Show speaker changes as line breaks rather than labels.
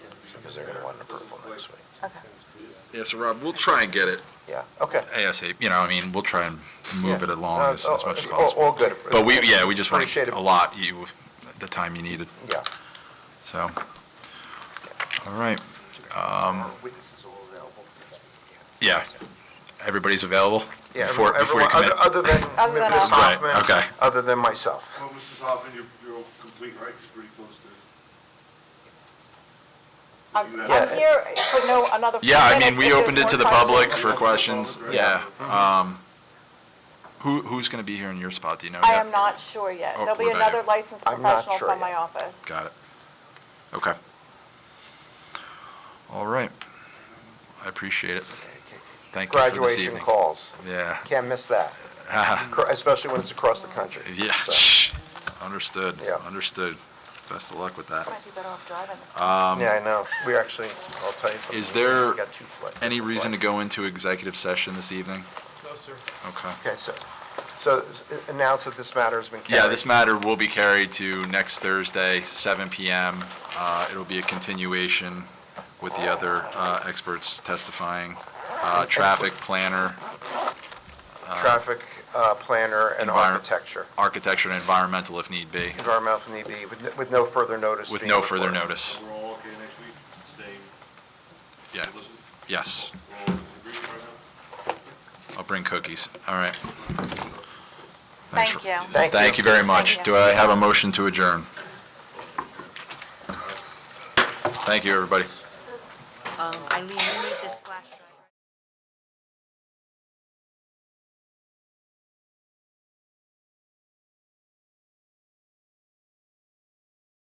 because they're gonna want an approval next week.
Okay.
Yeah, so Rob, we'll try and get it
Yeah, okay.
ASAP, you know, I mean, we'll try and move
Yeah.
it along
No,
as,
oh,
as much as
oh,
possible.
All good.
But we, yeah, we just want
Appreciate it.
to allot you the time you needed,
Yeah.
so. All right, Um,
Witnesses all available.
yeah, everybody's available
Yeah,
before,
everyone-
before you commit?
other- Other than
Other than
Ms.
us.
Right,
Hoffman.
okay.
Other than myself.
Well, Mrs. Hoffman, you're, you're all complete, right? You're pretty close to.
I'm,
You have-
I'm here for no, another. few
Yeah, I mean,
minutes
we
if there's
opened it
more
to the
questions.
public
questions.
for questions, yeah.
Yeah.
Um, who, who's going to be here in your spot, do you know?
I
yet?
am not sure yet.
Oh,
There'll be
we're not
another
yet.
licensed
I'm not
professional
sure
from my
yet.
office.
Got it. Okay. All right. I appreciate it. Thank you for this
Graduation
evening.
calls.
Yeah. Uh,
Can't miss that, Cr- especially when it's across the country.
Yeah,
So,
understood,
Yeah.
understood. Best of luck with that.
Might be better off driving.
Yeah, I know. We actually, I'll tell you something.
Um, Is there
We got two flights.
Any reason to go into executive session this evening?
No, sir.
Okay.
Okay, so, so s- announce that this matter has been carried.
Yeah, this matter will be carried to next Thursday, 7 PM. Uh, It'll be a continuation with the other uh, experts testifying, uh, traffic planner,
Traffic uh, planner and
Envir-
architecture,
architecture and environmental if need be,
environmental need be, with n- with no further notice.
with
being
no further
recorded.
notice.
We're all okay next week, staying,
Yeah,
listen,
yes.
we're all in agreement right now?
I'll bring cookies. All right. Thanks
Thank
for-
you.
Thank you.
Thank you very much.
Thank you.
Do I have a motion to adjourn? Thank you, everybody.
Um, Eileen, you need this flash.